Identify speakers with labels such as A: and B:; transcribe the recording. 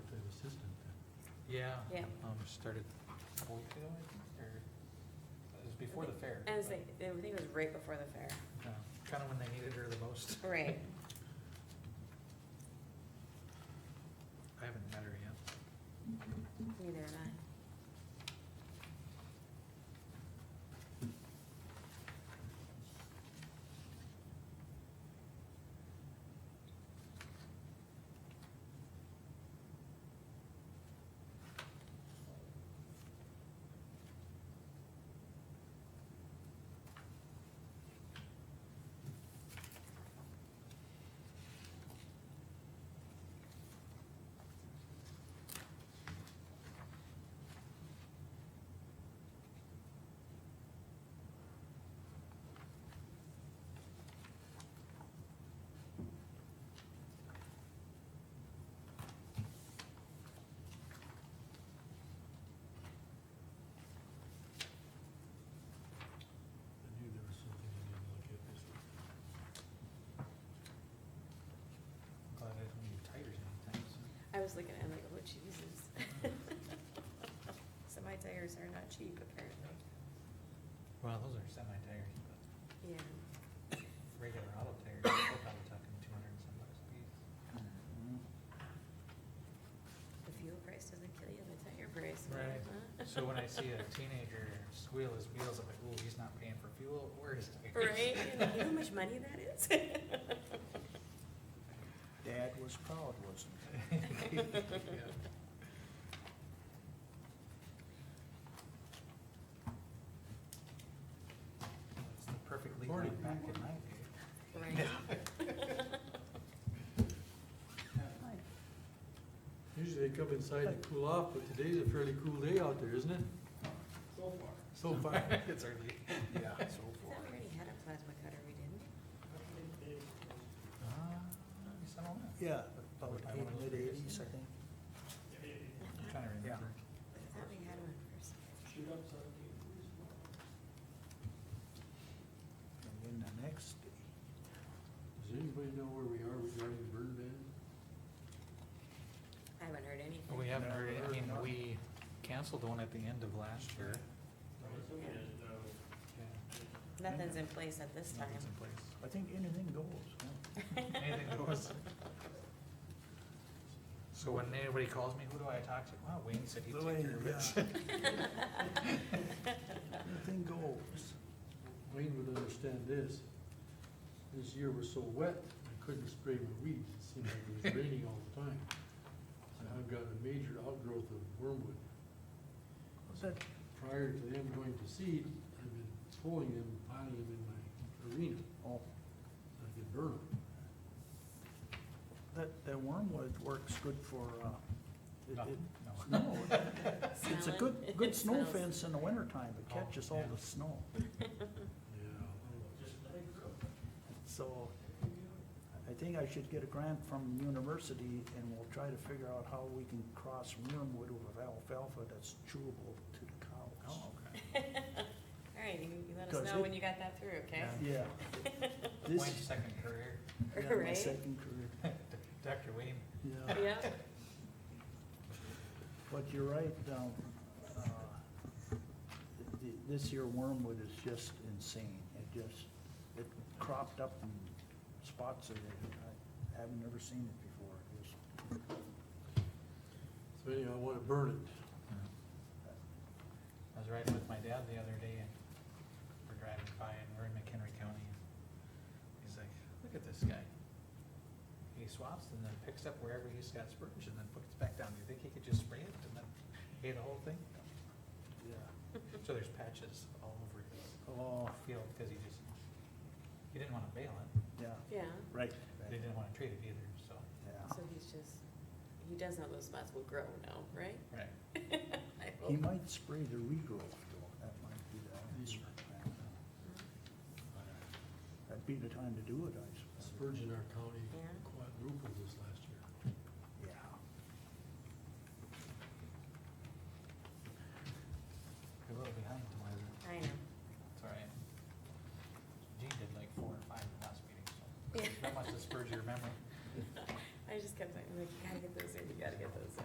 A: Yeah.
B: Yeah.
A: Um, started a week ago, I think, or, it was before the fair.
B: And it's like, I think it was right before the fair.
A: Kind of when they needed her the most.
B: Right.
A: I haven't met her yet.
B: Neither am I.
C: I knew there was something I didn't look at this week.
A: I'm Glad I don't need tires anytime soon.
B: I was looking at it like, oh Jesus. So my tires are not cheap apparently.
A: Well, those are semi-tires, but
B: Yeah.
A: regular auto tires, they're probably talking two hundred and some bucks a piece.
B: The fuel price doesn't kill you, the tire price. will,
A: Right.
B: huh?
A: So when I see a teenager squeal his wheels, I'm like, ooh, he's not paying for fuel or his tires.
B: Right? And you know how much money that is?
D: Dad was proud, wasn't he?
A: Yeah. It's the perfect legal
C: Morning.
A: back in my day.
B: Right.
C: Usually they come inside to cool off, but today's a fairly cool day out there, isn't it? So far. So far.
A: It's early.
D: Yeah, so
B: I thought we already had a plasma cutter, we didn't?
A: Uh, yes, I don't know.
D: Yeah, about mid eighties, I think.
A: I'm trying to
D: Yeah.
A: remember.
B: I thought we had one first.
D: And then the next day,
C: Does anybody know where we are regarding burn ban?
B: I haven't heard anything.
A: We haven't heard, I mean,
D: No.
A: we canceled one at the end of last year.
B: Nothing's in place at this time.
A: Nothing's in place.
D: I think anything goes, huh?
A: Anything goes. So when anybody calls me, who do I talk to? Wow, Wayne said he'd take care of it.
D: Anything goes.
C: Wayne would understand this. This year was so wet, I couldn't spray my weeds. It seemed like it was raining all the time. And I've got a major outgrowth of wormwood.
D: Was that,
C: Prior to them going to seed, I've been pulling them, piling them in my arena. I
D: oh,
C: could burn them.
D: that, that wormwood works good for, uh, it-
A: No,
D: it,
A: no.
D: no, it's a good,
B: Smelling?
D: good snow
B: Smells.
D: fence in the wintertime. It
A: Oh,
D: catches all
A: yeah.
D: the snow,
C: Yeah.
D: so I think I should get a grant from university and we'll try to figure out how we can cross wormwood with alfalfa that's chewable to the cows.
A: Oh, okay.
B: All right, you you let
D: Does
B: us know
D: it?
B: when you got that through, okay?
A: Yeah.
D: Yeah. This,
A: Wayne's second career,
D: yeah, uh, my
B: Right?
D: second career,
A: Dr. Wayne.
D: yeah.
B: Yeah,
D: But you're right, um, uh, th- this year wormwood is just insane. It just, it cropped up in spots that I haven't never seen it before. It was-
C: So anyhow, I wanna burn it.
A: I was riding with my dad the other day and we're driving by and we're in McHenry County. and He's like, look at this guy. He swaps and then picks up wherever he's got spurge and then puts it back down. Do you think he could just spray it and then hay the whole thing?
D: Yeah.
A: So there's patches all over the
D: Oh,
A: field because he just, he didn't want to bail it.
D: yeah,
B: yeah.
D: right.
A: but They
D: right,
A: didn't want to treat it either, so.
D: Yeah.
B: So he's just, he does know those spots will grow now, right?
A: Right.
B: I
D: He
B: hope.
D: might spray the regrowth though. That might be the answer.
B: Mm-hmm.
D: That'd be the time to do it, I suppose.
C: Spurgeon, our county
B: Yeah.
C: quadrupled this last year.
D: Yeah.
A: You're a little behind, Liza.
B: I know.
A: It's all right. Gene did like four or five in the last meeting, so.
B: Yeah.
A: Not much to spur your memory.
B: I just kept saying, like, you gotta get those in, you gotta get those in.